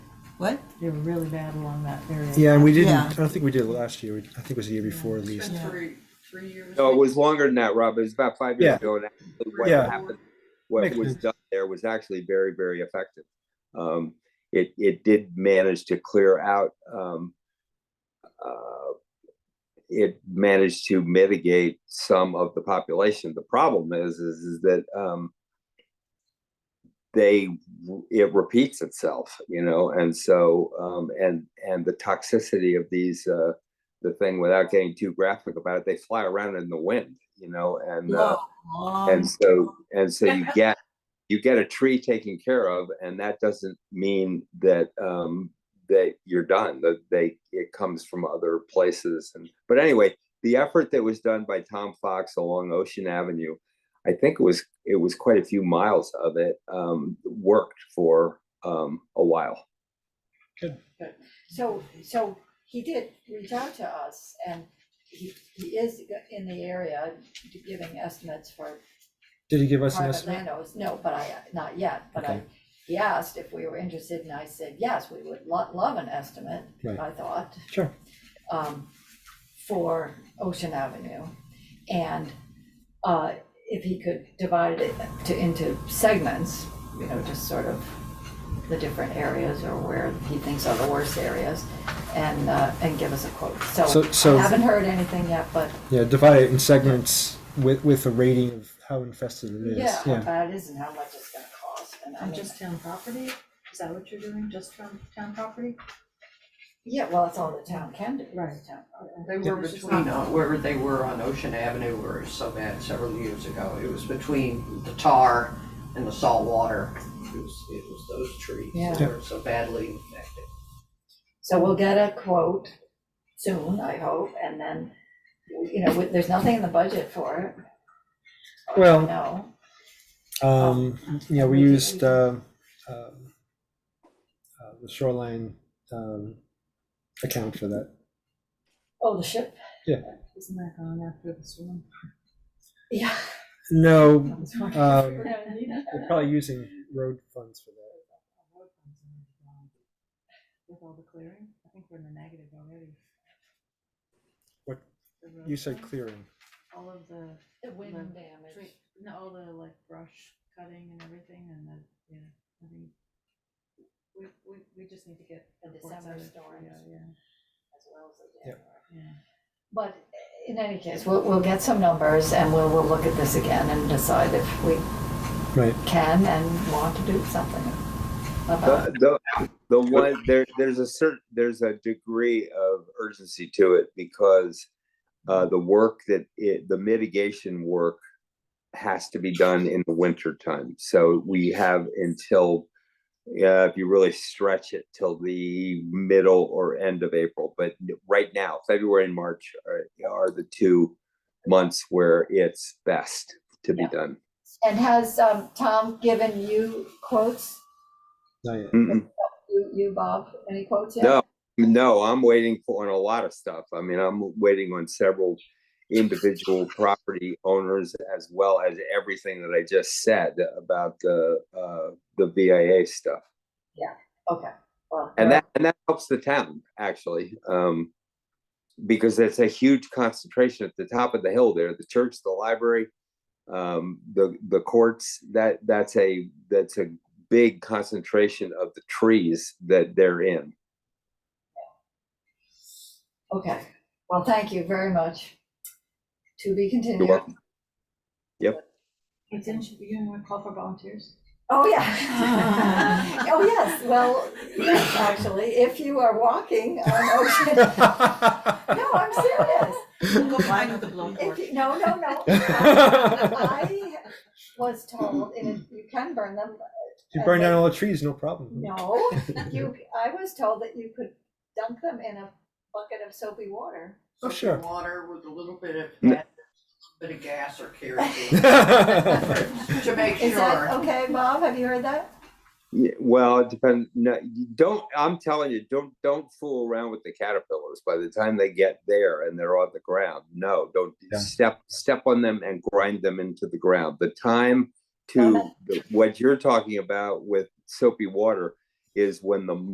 What? They were really bad along that area. Yeah, and we didn't, Yeah. I don't think we did it last year. We- I think it was the year before at It's least. been Yeah. three, three years. No, it was longer than that, Rob. It was about five years Yeah. ago. And actually what Yeah. happened, what Makes was sense. done there was actually very, very effective. Um, it, it did manage to clear out, um, uh, it managed to mitigate some of the population. The problem is, is, is that, um, they, it repeats itself, you know, and so, um, and, and the toxicity of these, uh, the thing without getting too graphic about it, they fly around in the wind, you know, and uh, and so and so you get you get a tree taken care of, and that doesn't mean that um, that you're done. That they it comes from other places. And but anyway, the effort that was done by Tom Fox along Ocean Avenue, I think it was it was quite a few miles of it um, worked for um, a while. So, so he did reach out to us and he, he is in the area giving estimates for Did he give us an private estimate? landowners. No, but I, not yet, but I, Okay. he asked if we were interested and I said, yes, we would lo- love an estimate, Right. I thought. Sure. um, for Ocean Avenue. And uh, if he could divide it to, into segments, you know, just sort of the different areas or where he thinks are the worst areas and, uh, and give us a quote. So So- so- I haven't heard anything yet, but Yeah, divide it in segments with, with a rating of how infested it is. yeah, how bad it is and how much it's gonna cost. And I And mean, just town property? Is that what you're doing, just from town property? yeah, well, it's all the town can do. It's Right. town property. They were It's just between, not- uh, wherever they were on Ocean Avenue were so bad several years ago. It was between the tar and the salt water. It was, it was those trees that Yeah. were so badly affected. So we'll get a quote soon, I hope, and then, you know, there's nothing in the budget for it. Well, No, Um, you know, we used, uh, um, uh, the shoreline, um, account for that. oh, the ship, Isn't that gone after the storm? yeah. No, It's fine. um, we're probably using road funds for that. With all the clearing, I think we're in the negative already. What- The road You said clearing, clearing. All of the The wind damage. tree, no, all the like brush cutting and everything and the, yeah, I think. We, we, we just need to get. The reports December out of- storms. Yeah, as well as the Yep. January. yeah. But in any case, we'll, we'll get some numbers and we'll, we'll look at this again and decide if we Right. can and want to do something about it. the, the, the one there there's a certain there's a degree of urgency to it because uh, the work that it, the mitigation work has to be done in the winter time so we have until yeah if you really stretch it till the middle or end of april but right now february and march are, are the two months where it's best to be Yeah. done And has, um, Tom given you quotes? Not yet. Mm-mm. You, you, Bob, any quotes yet? No, no, I'm waiting for on a lot of stuff. I mean, I'm waiting on several individual property owners as well as everything that I just said about the uh, the VIA stuff. Okay, well. And that and that helps the town actually. Um, because it's a huge concentration at the top of the hill there, the church, the library, um, the the courts, that that's a that's a big concentration of the trees that they're in. Okay, well, thank you very much. To be continued. welcome. Hey, didn't you, you want to call for volunteers? Oh, yeah. Oh, yes, well, yes, actually, if you are walking on Ocean, no, I'm serious. Go blind with the If you, no, no, no. I was told, and you can burn them, uh, You burn down all the trees, no problem. no, you, I was told that you could dunk them in a bucket of soapy water. Oh, Soapy sure. Water with a little bit of, Mm. bit of gas or kerosene Right. to make Is that sure. okay, Bob, have you heard that? Yeah, well, it depends. No, you don't. I'm telling you, don't don't fool around with the caterpillars. By the time they get there and they're on the ground, no, don't Yeah. step step on them and grind them into the ground. The time Got to the, what you're talking about with soapy water is when the